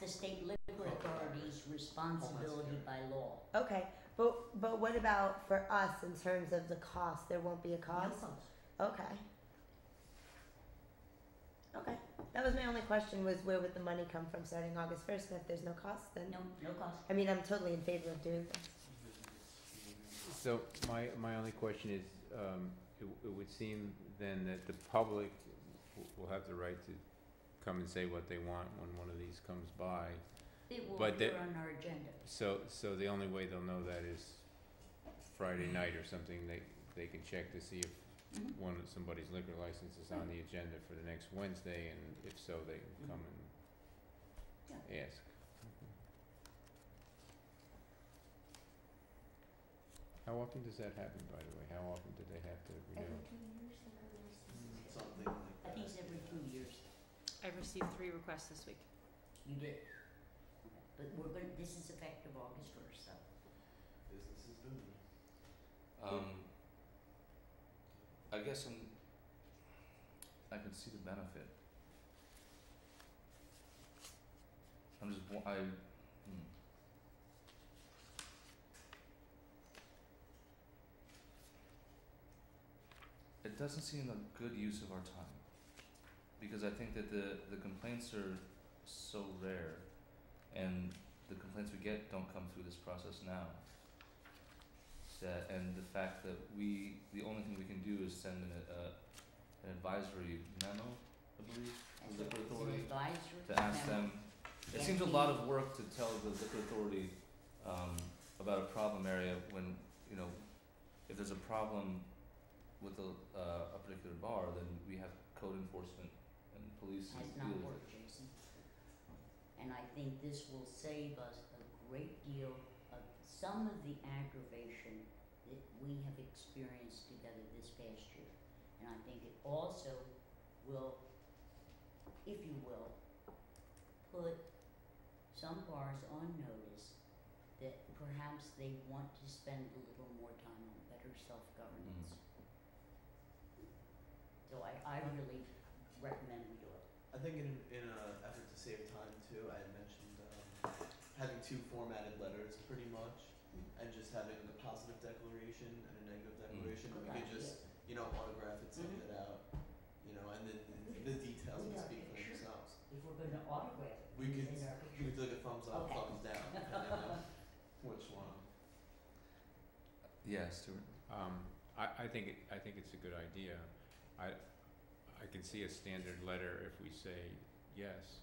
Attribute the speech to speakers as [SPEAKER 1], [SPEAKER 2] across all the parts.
[SPEAKER 1] the state liquor authority's responsibility by law.
[SPEAKER 2] Okay, but but what about for us in terms of the cost? There won't be a
[SPEAKER 1] No
[SPEAKER 2] cost.
[SPEAKER 1] cost.
[SPEAKER 2] Okay. Okay, that was my only question: was where would the money come from starting August first? And if there's no cost, then
[SPEAKER 1] No, no cost.
[SPEAKER 2] I mean, I'm totally in favor of doing this.
[SPEAKER 3] So my, my only question is, um, it, w- it would seem then that the public w- will have the right to come and say what they want when one of these comes by.
[SPEAKER 1] It will
[SPEAKER 3] But
[SPEAKER 1] appear
[SPEAKER 3] the-
[SPEAKER 1] on our agenda.
[SPEAKER 3] So, so the only way they'll know that is Friday night or something, they, they can check to see if
[SPEAKER 1] Mhm.
[SPEAKER 3] one, of somebody's liquor license is on the agenda for the next Wednesday, and if so, they can come and ask. How often does that happen, by the way? How often do they have to renew? Mm,
[SPEAKER 4] Something like
[SPEAKER 1] I think it's every two years.
[SPEAKER 5] I received three requests this week.
[SPEAKER 1] You did. But we're gonna, this is effective August first, so.
[SPEAKER 4] business is booming.
[SPEAKER 6] Um, I guess I'm. I could see the benefit. I'm just. wa- I. Hmm. It doesn't seem a good use of our time, because I think that the the complaints are so rare, and the complaints we get don't come through this process now that and the fact that we the only thing we can do is send an uh, an advisory memo, I believe,
[SPEAKER 1] As
[SPEAKER 6] The liquor
[SPEAKER 1] an
[SPEAKER 6] authority
[SPEAKER 1] advisory
[SPEAKER 6] to ask
[SPEAKER 1] member.
[SPEAKER 6] them. It seems a lot of work to tell the liquor authority um, about a problem area when you know if there's a problem with a uh, a particular bar, then we have code enforcement and police.
[SPEAKER 1] has
[SPEAKER 6] to
[SPEAKER 1] not
[SPEAKER 6] deal with it.
[SPEAKER 1] worked, Jason. And I think this will save us a great deal of some of the aggravation that we have experienced together this past year. And I think it also will, if you will, put some bars on notice that perhaps they want to spend a little more time on better self-governance. So I, I really recommend we do it.
[SPEAKER 4] I think in in an effort to save time too, I had mentioned um, having two formatted letters pretty much, and just having a positive declaration and a
[SPEAKER 6] Mm.
[SPEAKER 4] negative declaration.
[SPEAKER 1] Good
[SPEAKER 4] We could
[SPEAKER 1] idea.
[SPEAKER 4] just you know autograph it, send
[SPEAKER 1] Mhm.
[SPEAKER 4] it out, you know, and then the details
[SPEAKER 1] We
[SPEAKER 4] would
[SPEAKER 1] got
[SPEAKER 4] speak for
[SPEAKER 1] pictures.
[SPEAKER 4] themselves.
[SPEAKER 1] If we're gonna autograph it,
[SPEAKER 4] We
[SPEAKER 1] we
[SPEAKER 4] could
[SPEAKER 1] send our
[SPEAKER 4] you
[SPEAKER 1] picture.
[SPEAKER 4] could do like a thumbs up,
[SPEAKER 1] Okay.
[SPEAKER 4] thumbs down, depending on which one.
[SPEAKER 6] Yeah, Stuart.
[SPEAKER 3] Um, I, I think, it- I think it's a good idea. I, I can see a standard letter if we say yes,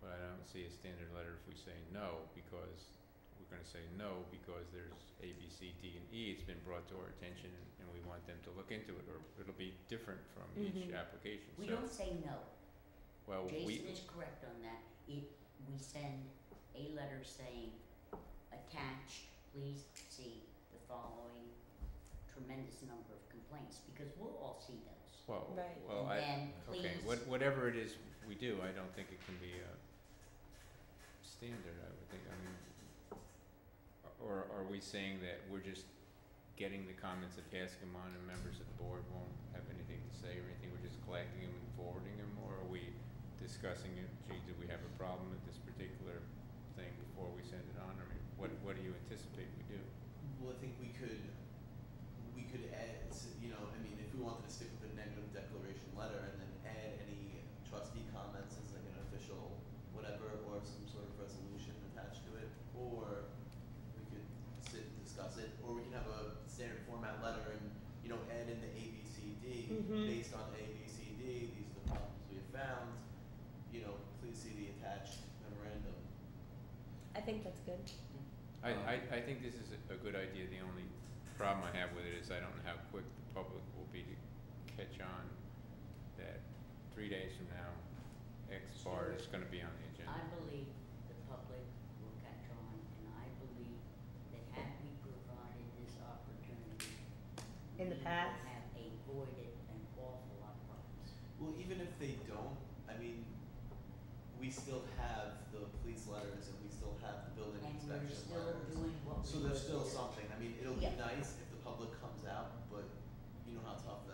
[SPEAKER 3] but I don't see a standard letter if we say no, because we're gonna say no, because there's A, B, C, D, and E, it's been brought to our attention, and we want them to look into it, or it'll be different from each
[SPEAKER 2] Mhm.
[SPEAKER 3] application, so,
[SPEAKER 1] Mm-hmm. We don't say no,
[SPEAKER 3] well, we.
[SPEAKER 1] Jason is correct on that, it, we send a letter saying, attached, please see the following tremendous number of complaints, because we'll all see those.
[SPEAKER 3] Well,
[SPEAKER 2] Right.
[SPEAKER 3] well, I,
[SPEAKER 1] And then, please.
[SPEAKER 3] okay, what, whatever it is we do, I don't think it can be a standard, I would think, I mean, or are we saying that we're just getting the comments and passing them on and members of the board won't have anything to say or anything, we're just collecting them and forwarding them, or are we discussing it, gee, do we have a problem with this particular thing before we send it on, I mean, what, what do you anticipate we do?
[SPEAKER 4] Well, I think we could, we could add, s- you know, I mean, if we wanted to stick with a negative declaration letter and then add any trustee comments as like an official whatever or some sort of resolution attached to it, or we could sit and discuss it, or we can have a standard format letter and, you know, add in the A, B, C, D,
[SPEAKER 2] Mhm.
[SPEAKER 4] based on A, B, C, D, these are the problems we have found, you know, please see the attached memorandum.
[SPEAKER 2] I think that's good.
[SPEAKER 3] I,
[SPEAKER 6] Um,
[SPEAKER 3] I, I think this is a, a good idea, the only problem I have with it is I don't know how quick the public will be to catch on that three days from now, X bar is gonna be on the
[SPEAKER 1] I
[SPEAKER 3] agenda.
[SPEAKER 1] believe the public will catch on, and I believe that had we provided this opportunity,
[SPEAKER 2] In the
[SPEAKER 1] we would
[SPEAKER 2] past?
[SPEAKER 1] have avoided an awful lot of problems.
[SPEAKER 4] Well, even if they don't, I mean, we still have the police letters and we still have the building
[SPEAKER 1] And we're
[SPEAKER 4] inspection
[SPEAKER 1] still
[SPEAKER 4] letters.
[SPEAKER 1] doing what we.
[SPEAKER 4] So there's
[SPEAKER 1] were
[SPEAKER 4] still
[SPEAKER 1] doing.
[SPEAKER 4] something, I mean, it'll be
[SPEAKER 1] Yeah.
[SPEAKER 4] nice if the public comes out, but you know how tough that